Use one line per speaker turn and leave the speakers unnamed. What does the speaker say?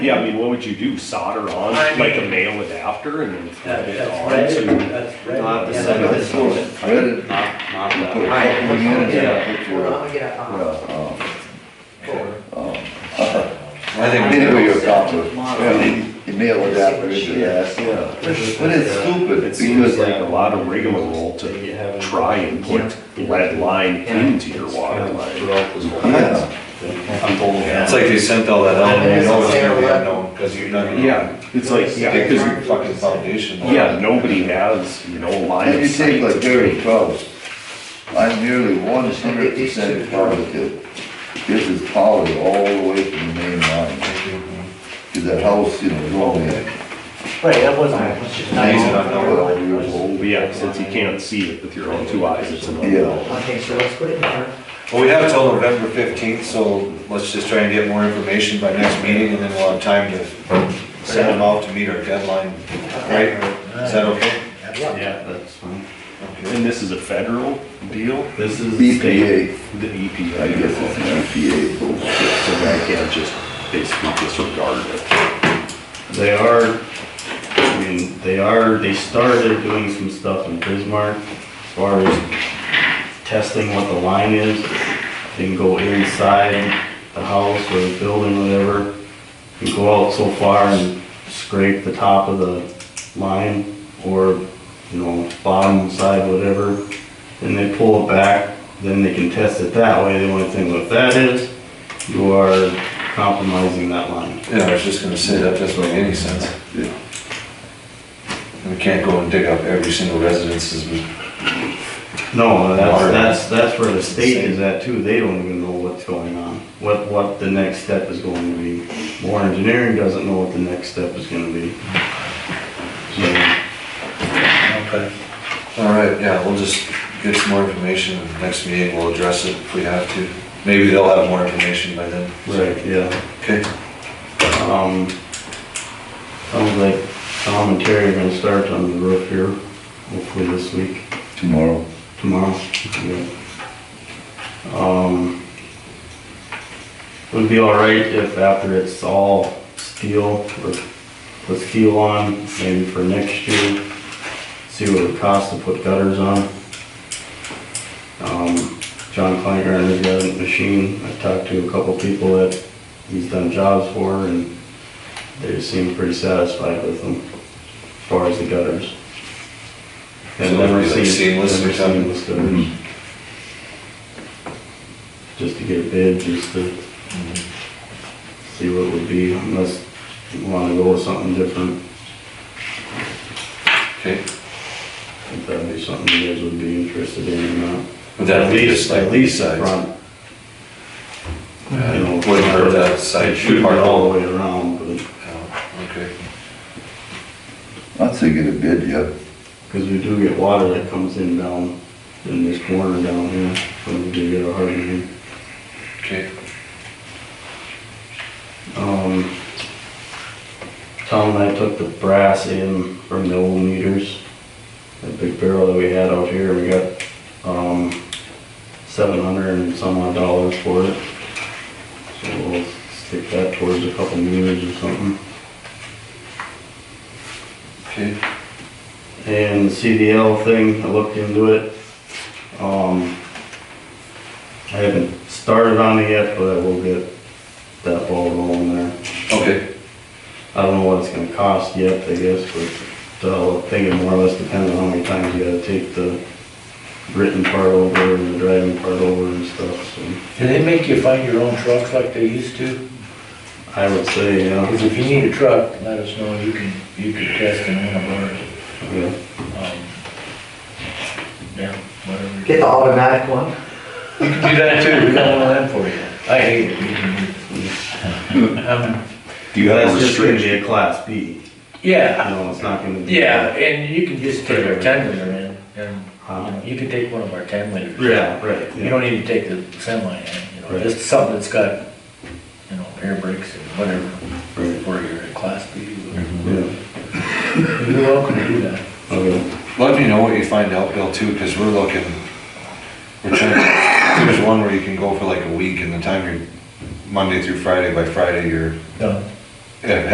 Yeah, I mean, what would you do? Solder on
I mean-
like a male adapter and then thread
That-
it
That's
on?
red,
so-
that's red.
Not the
Yeah,
second,
that's-
this one. Red, not, not
You
that.
put a couple of units in a picture of, uh,
I think we
anyway,
do.
you accomplish,
Yeah.
you nail it down, but yes.
Yeah.
But it's stupid,
It seems
because
like a lot of rigmarole to try and put lead line into your water line.
Yeah,
It's like they sent all that out, and you know it's gonna be unknown, because you're not gonna.
Yeah, it's like, yeah,
Dig through your
because,
fucking foundation.
yeah, nobody has, you know, a line
and
of
you take
sight
like
to
Gary
trade.
Krause, I'm nearly one hundred percent positive, this is powered all the way from the main line, to the house, you know, is only
Right, that wasn't, it was just.
Amazing, I know.
twelve years old.
Well, yeah, since you can't see it with your own two eyes, it's an.
Yeah,
Okay, so let's put it in there.
Well, we have till November fifteenth, so let's just try and get more information by next meeting, and then we'll have time to send them out to meet our deadline, right? Is that okay?
Yeah.
That's fine.
Okay.
And this is a federal deal?
This is.
BPA,
The EPA.
I guess it's E BPA,
So I can't just basically disregard it.
They are, I mean, they are, they started doing some stuff in Bismarck as far as testing what the line is. They can go inside the house or the building, whatever. You can go out so far and scrape the top of the line or, you know, bottom side, whatever. And they pull it back, then they can test it that way. The only thing with that is you are compromising that line.
Yeah, I was just gonna say, that doesn't make any sense.
Yeah.
We can't go and dig up every single residence's
No,
Water.
that's, that's, that's where the state is at too, they don't even know what's going on, what, what the next step is going to be. More engineering doesn't know what the next step is gonna be. So,
Okay. All right, yeah, we'll just get some more information, and next meeting we'll address it if we have to. Maybe they'll have more information by then.
right, yeah,
Okay,
um, sounds like Tom and Terry are gonna start on the roof here, hopefully this week.
tomorrow.
tomorrow. yeah. Um, Would be all right if after it's all steel, or put steel on, maybe for next year, see what it costs to put gutters on. Um, John Kleingartner's got a machine, I talked to a couple people that he's done jobs for, and they seem pretty satisfied with them, as far as the gutters.
So
And
it'll be
never
like
seen-
seamless or
never
something? Mm-hmm.
seamless gutters. Just to get a bid, just to
Mm-hmm.
see what it would be, unless you wanna go with something different,
okay.
if that'd be something you guys would be interested in or not.
Would that be just like
At least
these
the
sides?
front. You know,
Wouldn't hurt that side
it should be
part.
all the way around, but,
Yeah, Oh, Okay,
I'd say get a bid, yeah,
cause we do get water that comes in down, in this corner down here, when we do get a hard rain.
okay.
Um, Tom and I took the brass in from the old meters, that big barrel that we had out here, we got, um, seven hundred and some odd dollars for it. So we'll stick that towards a couple meters or something.
Okay,
And the CDL thing, I looked into it. Um, I haven't started on it yet, but I will get that ball rolling there.
okay,
I don't know what it's gonna cost yet, I guess, but the whole thing it more or less depends on how many times you gotta take the written part over and the driving part over and stuff, so.
Do they make you find your own trucks like they used to?
I would say, yeah,
Because if you need a truck, let us know, you can, you can test in one of ours.
yeah,
Um, Yeah, whatever.
Get the automatic one.
You can do that too, we got one of them for you. I hate it, we can do it. Um,
Do you have a
That's just gonna
restriction?
be a class B, you
Yeah,
know, it's not gonna be.
yeah, and you can just take our ten liter in, and, you know, you can take one of our ten liters.
Yeah, right,
You
yeah,
don't need to take the semi in, you know,
Right.
just something that's got, you know, air brakes and whatever,
right, Mm-hmm.
or you're a class B.
yeah,
You're welcome to do that.
okay,
let me know what you find out, Bill, too, because we're looking, we're trying, there's one where you can go for like a week, and the time you're, Monday through Friday, by Friday, you're
Done.
and